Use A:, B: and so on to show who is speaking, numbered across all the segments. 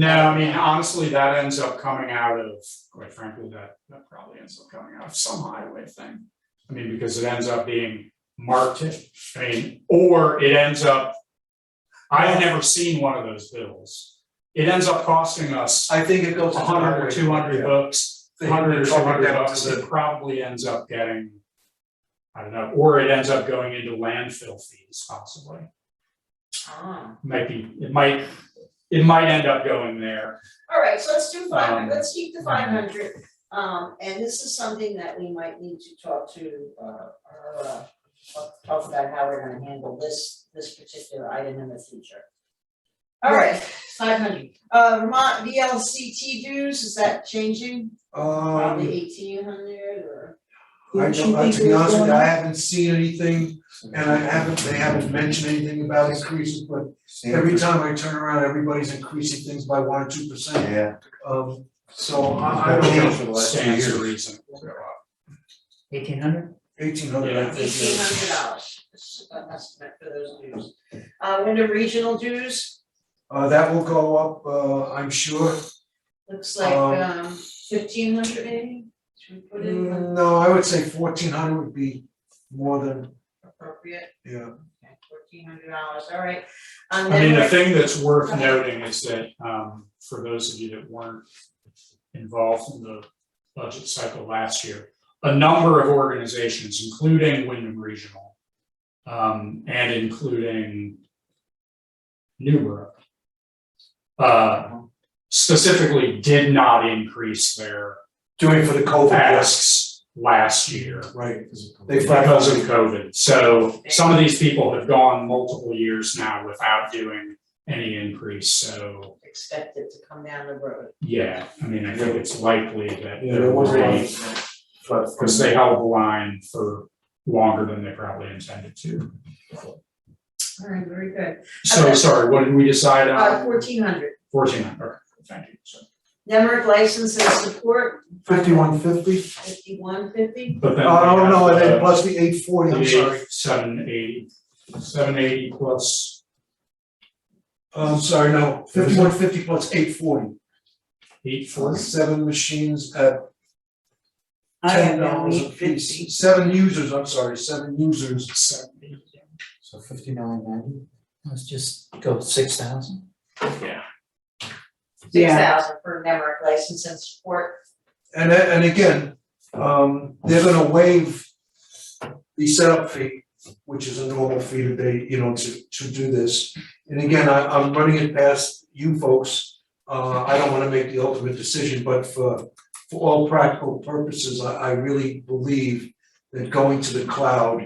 A: No, I mean, honestly, that ends up coming out of, quite frankly, that, that probably ends up coming out of some highway thing. I mean, because it ends up being marked, I mean, or it ends up. I've never seen one of those bills. It ends up costing us
B: I think it
A: a
B: goes. to
A: hundred or
B: highway.
A: two hundred
B: Yeah.
A: bucks,
B: They-
A: hundred or
B: they
A: two
B: talk
A: hundred
B: about
A: bucks,
B: the-
A: it probably ends up getting. I don't know, or it ends up going into landfill fees possibly.
C: Ah.
A: Might be, it might, it might end up going there.
C: All right, so let's do
A: Um,
C: five, let's keep the five hundred, um, and this is something that we might need to talk to, uh, our, uh, talk- talk about how we're gonna handle this, this particular item in the future. All right, five hundred, uh, Vermont VLCT dues, is that changing, probably
B: Um,
C: eighteen hundred or?
B: I don't, I- to be honest with you, I haven't seen anything, and I haven't, they haven't mentioned anything about increases, but every time I turn around, everybody's increasing things by one or two percent.
D: Yeah.
B: Um, so I, I don't know,
A: Stands to reason. it will go up.
E: Eighteen hundred?
B: eighteen hundred, I think.
C: Eighteen
B: yeah.
C: hundred dollars, that's an estimate for those dues. Uh, Wyndham Regional dues,
B: Uh, that will go up, uh, I'm sure.
C: looks like,
B: Um,
C: um, fifteen hundred maybe, should we put in
B: Mm, No, I would say fourteen hundred would be more than,
C: appropriate?
B: yeah,
C: Fourteen hundred dollars, all right. Um,
A: I
C: then
A: mean, the
C: we're-
A: thing that's worth noting is that, um, for those of you that weren't involved in the budget cycle last year, a number of organizations, including Wyndham Regional, um, and including Newbrook, uh, specifically did not increase their
B: doing for the COVID, yes,
A: asks last year
B: right, they flat.
A: because of COVID. So some of these people have gone multiple years now without doing any increase, so
C: Expect it to come down the road.
A: yeah, I mean, I think it's likely that
B: Yeah, there was
A: they're,
B: one.
A: because they held the line for longer than they probably intended to.
C: All right, very good.
A: So
C: Okay.
A: sorry, what did we decide
C: Uh,
A: on?
C: fourteen hundred.
A: Fourteen, okay, thank you. So-
C: Nemrick license and support,
B: Fifty-one fifty?
C: fifty-one fifty.
A: But then.
B: Oh,
A: we
B: no,
A: have
B: no, and
A: the-
B: then plus the eight forty, I'm sorry.
A: the Seven eighty, seven eighty plus
B: Oh, I'm sorry, no, fifty-one fifty plus eight forty,
A: eight
B: for
A: forty.
B: seven machines at
E: I
B: ten
E: have no
B: dollars
E: eight fifty.
B: apiece. Seven users, I'm sorry, seven users.
A: Seventy,
D: So fifty-nine ninety?
E: Let's just go six thousand.
A: yeah.
C: Six
E: Yeah.
C: thousand for Nemrick license and support.
B: And a- and again, um, they're gonna waive the setup fee, which is a normal fee that they, you know, to to do this. And again, I I'm running it past you folks, uh, I don't wanna make the ultimate decision, but for for all practical purposes, I I really believe that going to the cloud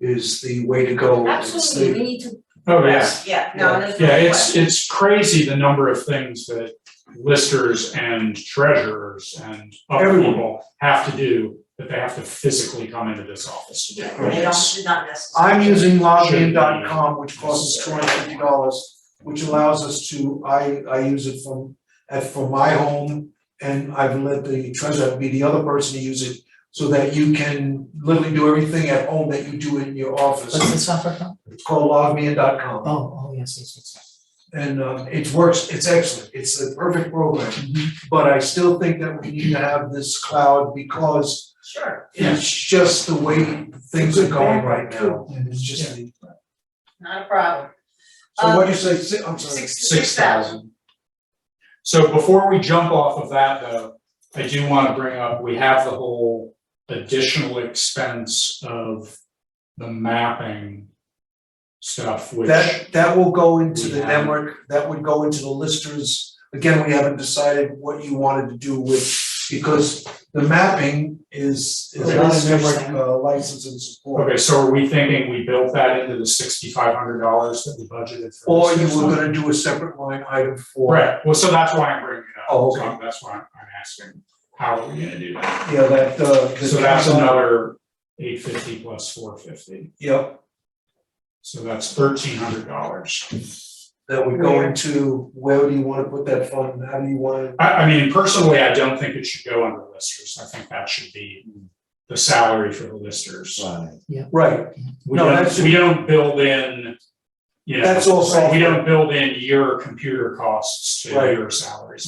B: is the way to go. It's
C: Absolutely, we
B: the-
C: need to.
A: Oh, yeah.
C: Yeah, no, there's no
A: Yeah, it's,
C: question.
A: it's crazy the number of things that listers and treasurers and other
B: Everyone.
A: people have to do that they have to physically come into this office to do.
C: Yeah, they don't, do not necessarily.
B: I'm using login.com, which costs us two hundred fifty dollars, which allows us to, I, I use it from, at, from my home. And I've let the treasurer be the other person to use it, so that you can literally do everything at home that you do in your
E: What's
B: office.
E: the software called?
B: It's called logmein.com,
E: Oh, oh, yes, yes, yes.
B: and, um, it works, it's excellent, it's the perfect program.
E: Mhm.
B: But I still think that we need to have this cloud because
C: Sure,
B: it's just the way things are going right now, and it's just the-
C: not a problem.
B: So
C: Um,
B: what'd you say, si- I'm sorry,
C: Six,
A: Six thousand. So before we jump off of that though, I do wanna bring up, we have the whole additional expense of the mapping stuff, which.
B: that that will go into the
A: We have-
B: network, that would go into the listers. Again, we haven't decided what you wanted to do with, because the mapping is is
E: Okay.
B: not a network
E: Interesting.
B: uh, license and support.
A: Okay, so are we thinking we built that into the sixty-five hundred dollars that we budgeted for?
B: Or
A: this
B: you
A: something?
B: were gonna do a separate line item for.
A: Right, well, so that's why I'm bringing it up.
B: Oh,
A: So
B: okay.
A: That's why I'm I'm asking, how are we gonna do that?
B: Yeah, that uh. the-
A: So that's another eight fifty plus four fifty,
B: Yep,
A: so that's thirteen hundred dollars.
B: that would go
C: Where?
B: into, where do you wanna put that fund, how do you wanna,
A: I, I mean, personally, I don't think it should go under listers, I think that should be the salary for the listers.
D: Right.
B: right,
A: We
B: No,
A: don't,
B: that's-
A: we don't build in Yeah.
B: That's all
A: So
B: software.
A: We don't build in your computer costs to
B: Right.
A: your salaries.